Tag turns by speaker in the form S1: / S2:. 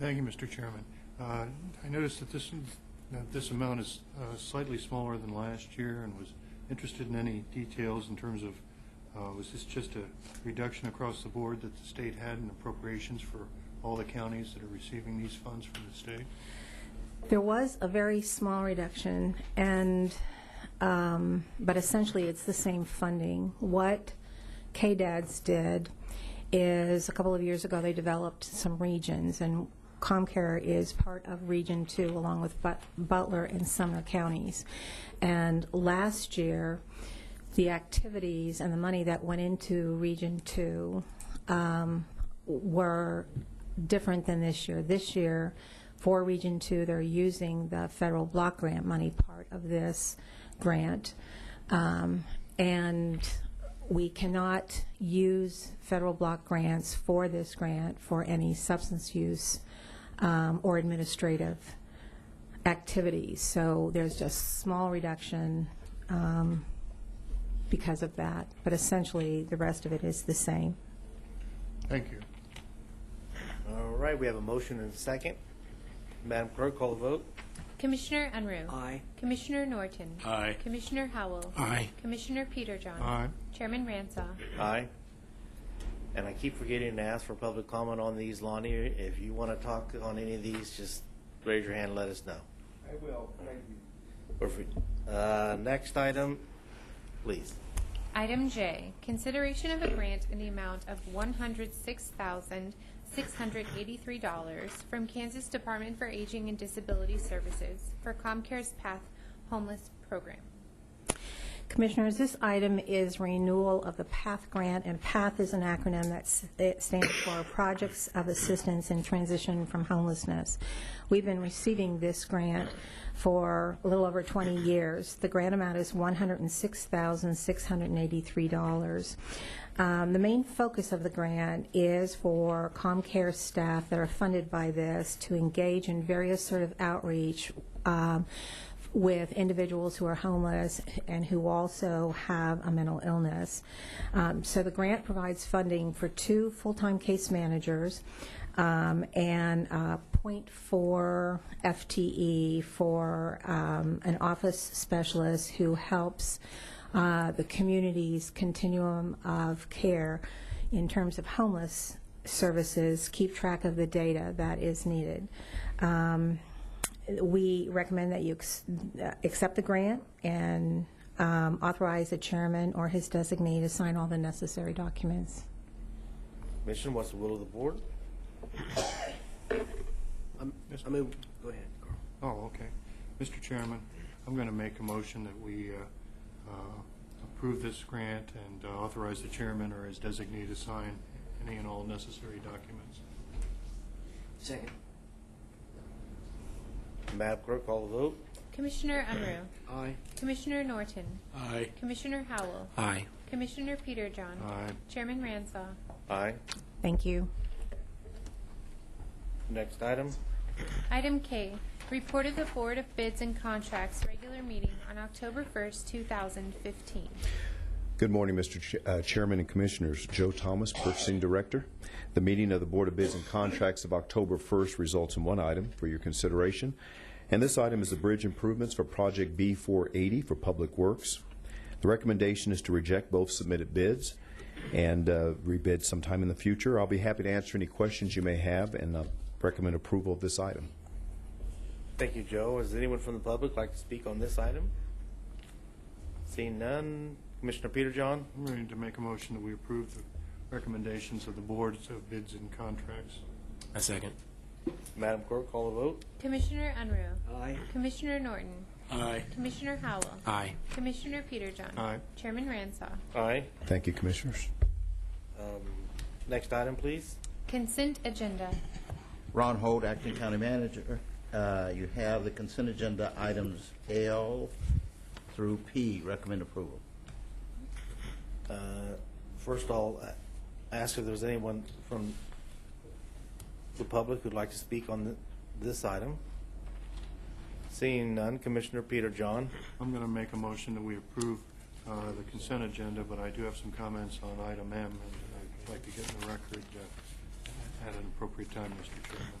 S1: Thank you, Mr. Chairman. Uh, I noticed that this, that this amount is uh, slightly smaller than last year and was interested in any details in terms of, uh, was this just a reduction across the board that the state had in appropriations for all the counties that are receiving these funds from the state?
S2: There was a very small reduction, and, um, but essentially, it's the same funding. What KDADS did is, a couple of years ago, they developed some regions, and ComCare is part of Region 2, along with But- Butler and Sumner counties. And last year, the activities and the money that went into Region 2 um, were different than this year. This year, for Region 2, they're using the federal block grant money part of this grant. Um, And we cannot use federal block grants for this grant for any substance use um, or administrative activities. So there's just small reduction um, because of that, but essentially, the rest of it is the same.
S1: Thank you.
S3: All right, we have a motion and a second. Madam Clerk, call the vote.
S4: Commissioner Unruh.
S3: Aye.
S4: Commissioner Norton.
S5: Aye.
S4: Commissioner Howell.
S5: Aye.
S4: Commissioner Peterjohn.
S1: Aye.
S4: Chairman Ransah.
S3: Aye. And I keep forgetting to ask for public comment on these, Lonnie. If you want to talk on any of these, just raise your hand, and let us know.
S6: I will, thank you.
S3: Or if we- uh, Next item, please.
S4: Item J, consideration of a grant in the amount of $106,683 from Kansas Department for Aging and Disability Services for ComCare's Path Homeless Program.
S2: Commissioners, this item is renewal of the PATH grant, and PATH is an acronym that s- it stands for Projects of Assistance in Transition from Homelessness. We've been receiving this grant for a little over 20 years. The grant amount is $106,683. Um, The main focus of the grant is for ComCare staff that are funded by this to engage in various sort of outreach um, with individuals who are homeless and who also have a mental illness. Um, so the grant provides funding for two full-time case managers um, and uh, 0.4 FTE E for um, an office specialist who helps uh, the community's continuum of care in terms of homeless services, keep track of the data that is needed. Um, we recommend that you ex- uh, accept the grant and um, authorize the chairman or his designee to sign all the necessary documents.
S3: Commissioner, what's the will of the board?
S7: I mean, go ahead, Carl.
S1: Oh, okay. Mr. Chairman, I'm going to make a motion that we uh, uh, approve this grant and uh, authorize the chairman or his designee to sign any and all necessary documents.
S7: Second.
S3: Madam Clerk, call the vote.
S4: Commissioner Unruh.
S7: Aye.
S4: Commissioner Norton.
S5: Aye.
S4: Commissioner Howell.
S5: Aye.
S4: Commissioner Peterjohn.
S1: Aye.
S4: Chairman Ransah.
S3: Aye.
S2: Thank you.
S3: Next item.
S4: Item K, report of the Board of Bids and Contracts regular meeting on October 1st, 2015.
S8: Good morning, Mr. Ch- uh, Chairman and Commissioners. Joe Thomas, Purchasing Director. The meeting of the Board of Bids and Contracts of October 1st results in one item for your consideration, and this item is the bridge improvements for Project B480 for Public Works. The recommendation is to reject both submitted bids and uh, rebid sometime in the future. I'll be happy to answer any questions you may have and uh, recommend approval of this item.
S3: Thank you, Joe. Does anyone from the public like to speak on this item? Seeing none. Commissioner Peter John?
S1: I'm ready to make a motion that we approve the recommendations of the boards of bids and contracts.
S5: A second.
S3: Madam Clerk, call the vote.
S4: Commissioner Unruh.
S7: Aye.
S4: Commissioner Norton.
S5: Aye.
S4: Commissioner Howell.
S5: Aye.
S4: Commissioner Peterjohn.
S1: Aye.
S4: Chairman Ransah.
S3: Aye. Um,
S8: Thank you, Commissioners.
S3: Next item, please.
S4: Consent agenda.
S6: Ron Holt, Acting County Manager. Uh, You have the consent agenda items L through P. Recommend approval.
S3: Uh, First of all, I ask if there's anyone from the public who'd like to speak on th- this item. Seeing none, Commissioner Peter John.
S1: I'm going to make a motion that we approve uh, the consent agenda, but I do have some comments on item M, and I'd like to get in the record uh, at an appropriate time, Mr. Chairman.